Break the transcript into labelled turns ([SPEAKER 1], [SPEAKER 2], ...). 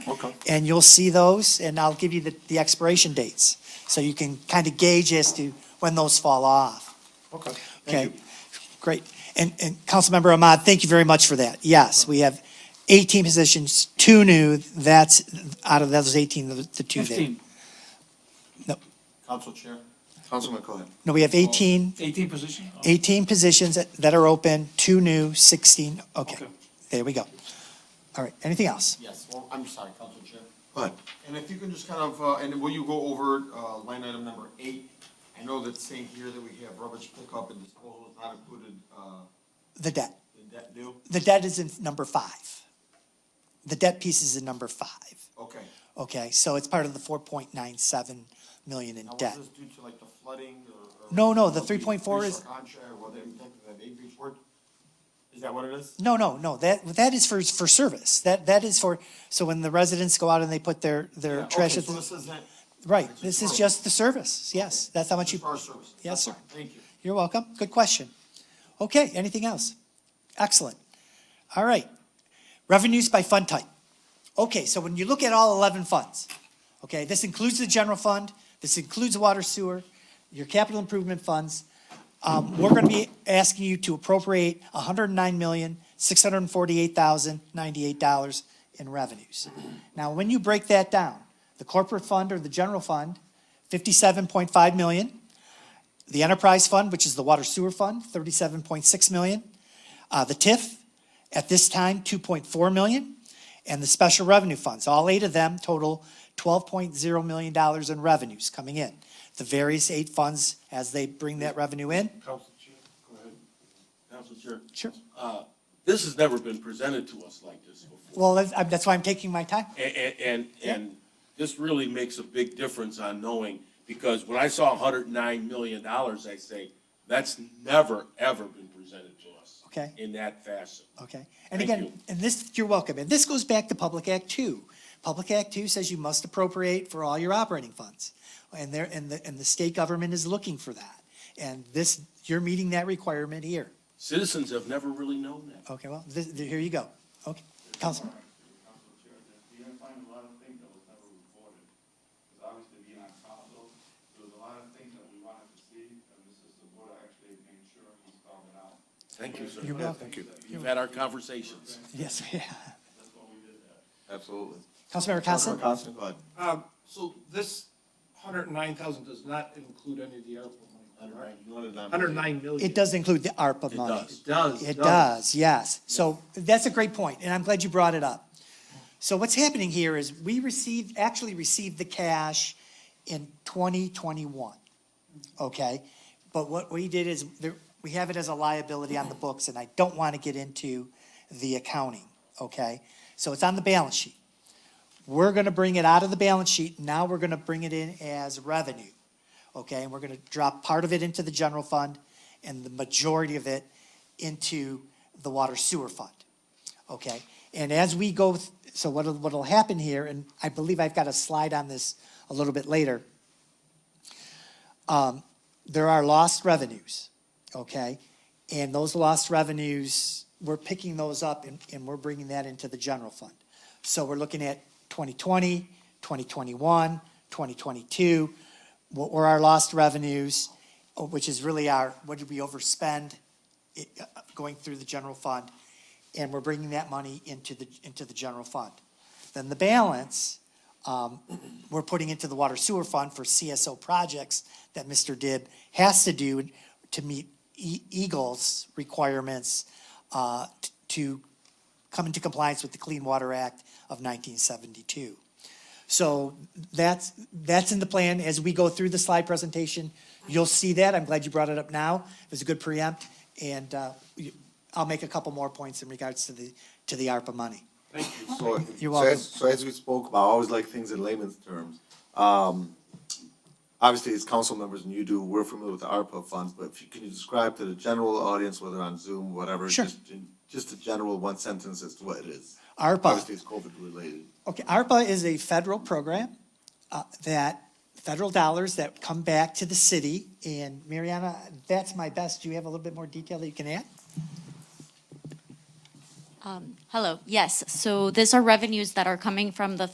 [SPEAKER 1] Okay.
[SPEAKER 2] And you'll see those, and I'll give you the, the expiration dates, so you can kind of gauge as to when those fall off.
[SPEAKER 1] Okay. Thank
[SPEAKER 2] Okay?
[SPEAKER 1] you.
[SPEAKER 2] Great. And, and Councilmember Ahmad, thank you very much for that. Yes, we have 18 positions, two new, that's, out of those 18, the the two there.
[SPEAKER 3] Fifteen.
[SPEAKER 2] No.
[SPEAKER 3] Council Chair.
[SPEAKER 1] Councilman Cohen.
[SPEAKER 2] No, we have 18,
[SPEAKER 3] Eighteen position?
[SPEAKER 4] Oh.
[SPEAKER 2] 18 positions that- that are open, two new, 16, okay.
[SPEAKER 3] Okay.
[SPEAKER 2] There we go. All right, anything else?
[SPEAKER 4] Yes, well, I'm sorry, Council Chair.
[SPEAKER 1] Go ahead.
[SPEAKER 4] And if you can just kind of, uh, and will you go over uh, line item number eight? I know that's saying here that we have rubbish pickup and disposal is not included, uh,
[SPEAKER 2] The debt.
[SPEAKER 4] in that new?
[SPEAKER 2] The debt is in number five. The debt piece is in number five,
[SPEAKER 4] Okay.
[SPEAKER 2] okay? So it's part of the 4.97 million in
[SPEAKER 4] Now, was
[SPEAKER 2] debt.
[SPEAKER 4] this due to like the flooding or? or-
[SPEAKER 2] No, no, the
[SPEAKER 4] or
[SPEAKER 2] 3.4 is-
[SPEAKER 4] breach of Contract, well, they protected that eight breach word? Is that what it is?
[SPEAKER 2] No, no, no, that, that is for, for service. That, that is for, so when the residents go out and they put their,
[SPEAKER 4] Yeah,
[SPEAKER 2] their
[SPEAKER 4] okay,
[SPEAKER 2] trash, at
[SPEAKER 4] So
[SPEAKER 2] the-
[SPEAKER 4] this isn't,
[SPEAKER 2] right,
[SPEAKER 4] it's a
[SPEAKER 2] this is
[SPEAKER 4] service.
[SPEAKER 2] just the service, yes. That's how much
[SPEAKER 4] it's
[SPEAKER 2] you,
[SPEAKER 4] for our services.
[SPEAKER 2] Yes,
[SPEAKER 4] That's
[SPEAKER 2] sir.
[SPEAKER 4] fine. Thank you.
[SPEAKER 2] You're welcome. Good question. Okay, anything else? Excellent. All right. Revenues by fund type. Okay, so when you look at all 11 funds, okay, this includes the general fund, this includes water sewer, your capital improvement funds. Um, We're going to be asking you to appropriate $109,648,098 in revenues. Now, when you break that down, the corporate fund or the general fund, 57.5 million. The enterprise fund, which is the water sewer fund, thirty-seven point six million. Uh, the TIF, at this time, two point four million. And the special revenue funds, all eight of them total twelve point zero million dollars in revenues coming in. The various eight funds as they bring that revenue in.
[SPEAKER 3] Council Chair, go ahead. Council Chair.
[SPEAKER 2] Sure.
[SPEAKER 5] Uh, This has never been presented to us like this before.
[SPEAKER 2] Well, that's, I'm- that's why I'm taking my time.
[SPEAKER 5] And, and, and this really makes a big difference on knowing, because when I saw hundred and nine million dollars, I say, that's never, ever been presented to us.
[SPEAKER 2] Okay.
[SPEAKER 5] In that fashion.
[SPEAKER 2] Okay, and
[SPEAKER 5] Thank
[SPEAKER 2] again,
[SPEAKER 5] you.
[SPEAKER 2] and this, you're welcome, and this goes back to Public Act Two. Public Act Two says you must appropriate for all your operating funds. And there, and the, and the state government is looking for that. And this, you're meeting that requirement here.
[SPEAKER 5] Citizens have never really known that.
[SPEAKER 2] Okay, well, this, here you go. Okay, Council,
[SPEAKER 6] Council Chair, that you're gonna find a lot of things that was never reported. Because obviously being on council, there was a lot of things that we wanted to see, and Mrs. Sabota actually made sure he spelled it out.
[SPEAKER 5] Thank you, sir.
[SPEAKER 2] you're welcome.
[SPEAKER 5] You've had our conversations.
[SPEAKER 2] Yes, yeah.
[SPEAKER 1] Absolutely.
[SPEAKER 2] Councilmember Constant?
[SPEAKER 1] Councilman Constant, go ahead.
[SPEAKER 7] Um, so this hundred and nine thousand does not include any of the ARPA money, correct?
[SPEAKER 4] You wanted that-
[SPEAKER 7] Hundred and nine million.
[SPEAKER 2] It does include the ARPA money.
[SPEAKER 5] does.
[SPEAKER 7] It does.
[SPEAKER 2] It does, yes. So that's a great point, and I'm glad you brought it up. So what's happening here is we received, actually received the cash in 2021, okay? But what we did is, there- we have it as a liability on the books, and I don't want to get into the accounting, okay? So it's on the balance sheet. We're going to bring it out of the balance sheet, now we're going to bring it in as revenue, okay? And we're going to drop part of it into the general fund and the majority of it into the water sewer fund, okay? And as we go, th- so what'll, what'll happen here, and I believe I've got a slide on this a little bit later. Um, There are lost revenues, okay? And those lost revenues, we're picking those up and, and we're bringing that into the general fund. So we're looking at 2020, 2021, 2022, what were our lost revenues, uh, which is really our, what did we overspend it, uh, going through the general fund? And we're bringing that money into the, into the general fund. Then the balance, um, we're putting into the water sewer fund for CSO projects that Mr. Dib has to do to meet E- Eagle's requirements, uh, t- to come into compliance with the Clean Water Act of nineteen seventy-two. So that's, that's in the plan. As we go through the slide presentation, you'll see that. I'm glad you brought it up now. It was a good preempt. And uh, you- I'll make a couple more points in regards to the, to the ARPA money.
[SPEAKER 1] So,
[SPEAKER 2] You're
[SPEAKER 1] so
[SPEAKER 2] welcome.
[SPEAKER 1] as, so as we spoke about, I always like things in layman's terms. Um, obviously, as council members and you do, we're familiar with the ARPA funds, but if you, can you describe to the general audience, whether on Zoom, whatever,
[SPEAKER 2] Sure.
[SPEAKER 1] just, just a general one sentence as to what it is?
[SPEAKER 2] ARPA.
[SPEAKER 1] Obviously, it's COVID related.
[SPEAKER 2] Okay, ARPA is a federal program uh, that, federal dollars that come back to the city. And Mariana, that's my best. Do you have a little bit more detail that you can add?
[SPEAKER 8] Hello, yes, so these are revenues that are coming from the